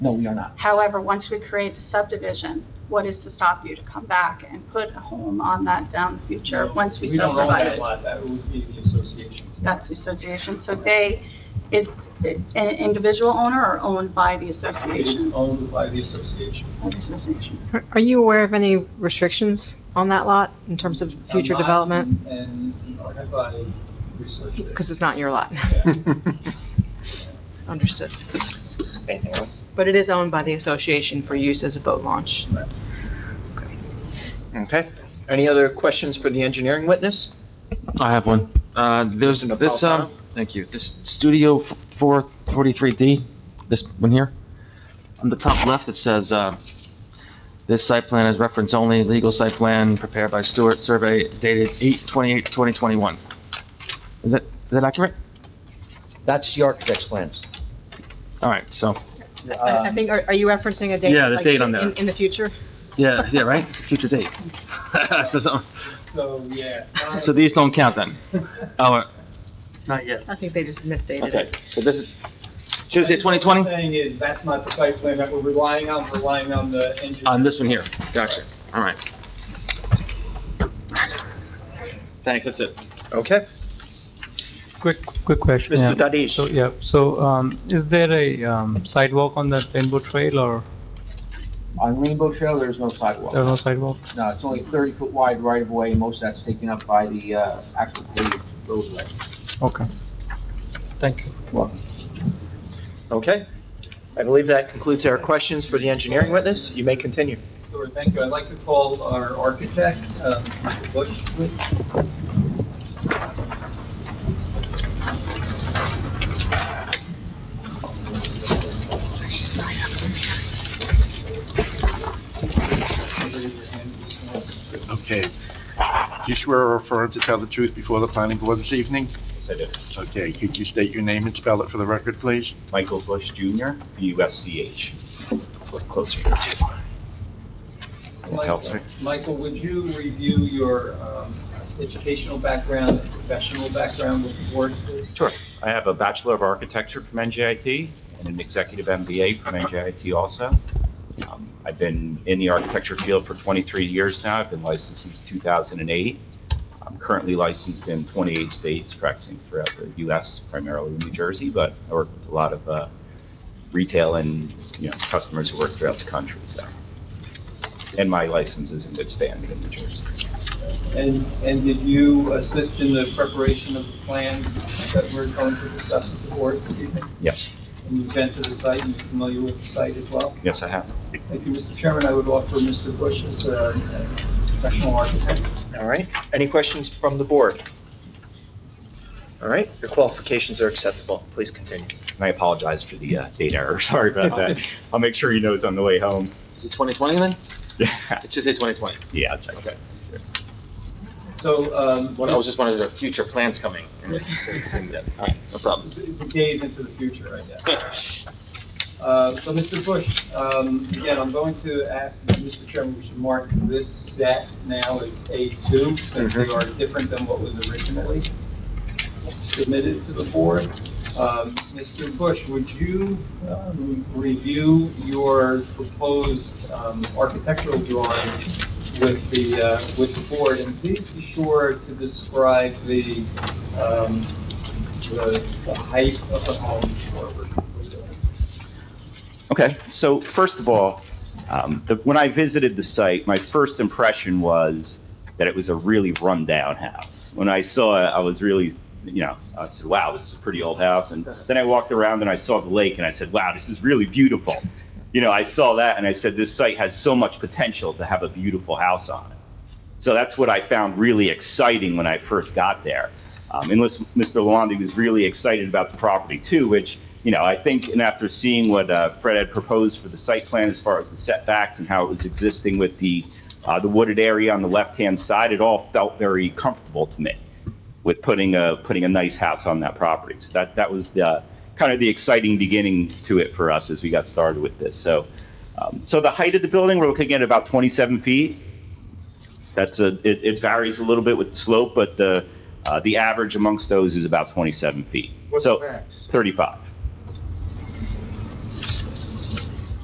No, we are not. However, once we create the subdivision, what is to stop you to come back and put a home on that down the future, once we We don't own subdivide that it? lot, that would be the association. That's the association, so they, is an individual owner or owned by the It is association? owned by the association. By the association. Are- Are you aware of any restrictions on that lot in terms of future I'm not, development? And nor have I researched it. Because it's not your lot. Yeah. Understood. Anything else? But it is owned by the association for use as a boat launch. Okay. Any other questions for the engineering witness? I have one. Uh, There's Mr. this, um, thank you, this Studio 443D, this one here. On the top left, it says, uh, "This site plan is reference only, legal site plan prepared by Stewart Survey dated 8/28/2021." Is that, is that accurate? That's the architect's plans. Uh, All right, so, I I think, are are you referencing a date? Yeah, the like, date on in- there. In the future? yeah, yeah, right? Future date. So, so- So, yeah. so these don't count then? Oh, not yet. I think they just misdated Okay, it. so this is, should it say 2020? What I'm saying is, that's not the site plan that we're relying on, we're relying on the engineer. On Uh, this one here, gotcha, all right. Thanks, that's it. Okay. Quick, quick question. Mr. yeah. Dadish. So, yeah, so, um, is there a, um, sidewalk on that rainbow trail or On Rainbow Trail, there's no there are no sidewalk. sidewalk? No, it's only thirty foot wide right of way, most of that's taken up by the, uh, actual paved roadway. Okay. Thank you. Okay. I believe that concludes our questions for the engineering witness. You may continue. Sure, Thank you. I'd like to call our architect, um, Mr. Bush, please. Okay. Do you swear or affirm to tell the truth before the planning board this evening? Yes, I do. Okay, could you state your name and spell it for the record, please? Michael Bush Jr., B-U-S-C-H. Look closer here, too. Michael- Help. Michael, would you review your um, educational background, and professional background with the board, please? Sure. I have a Bachelor of Architecture from NJIT and an Executive MBA from NJIT also. Um, I've been in the architecture field for 23 years now. I've been licensed since 2008. I'm currently licensed in 28 states, practicing throughout the U.S., primarily in New Jersey, but I work with a lot of uh, retail and, you know, customers who work throughout the country, so. And my license is in good standing in New Jersey. And, and did you assist in the preparation of the plans that we're going to discuss with the board this evening? Yes, And you've been to the site, and you're familiar with the site as well? yes, I have. Thank you, Mr. Chairman. I would offer Mr. Bush as a a professional architect. All right. Any questions from the board? All right, your qualifications are acceptable. Please continue. And I apologize for the uh, date error. Sorry about that. I'll make sure he knows on the way home. Is it 2020 then? Yeah, It should say 2020. yeah. I'll check that. So, um, What, I was just wondering, if there are future plans coming? and it's- it's in there. All right, no problem. it's days into the future, I guess. Uh, So, Mr. Bush, um, again, I'm going to ask, Mr. Chairman, we should mark this set now as A2, since they are different than what was originally submitted to the board. Um, Mr. Bush, would you um, review your proposed um, architectural drawing with the, uh, with the board? And please be sure to describe the, um, the the height of the home forward. Okay, so first of all, um, the- when I visited the site, my first impression was that it was a really rundown house. When I saw it, I was really, you know, I said, wow, this is a pretty old house. And then I walked around and I saw the lake and I said, wow, this is really beautiful. You know, I saw that and I said, this site has so much potential to have a beautiful house on it. So that's what I found really exciting when I first got there. Um, and listen, Mr. Lalonde was really excited about the property too, which, you know, I think, and after seeing what uh, Fred had proposed for the site plan as far as the setbacks and how it was existing with the, uh, the wooded area on the left-hand side, it all felt very comfortable to me with putting a, putting a nice house on that property. So that, that was the, kind of the exciting beginning to it for us as we got started with this. So, um, so the height of the building, we're looking at about 27 feet. That's a, it, it varies a little bit with slope, but the, uh, the average amongst those is about 27 feet. So 35.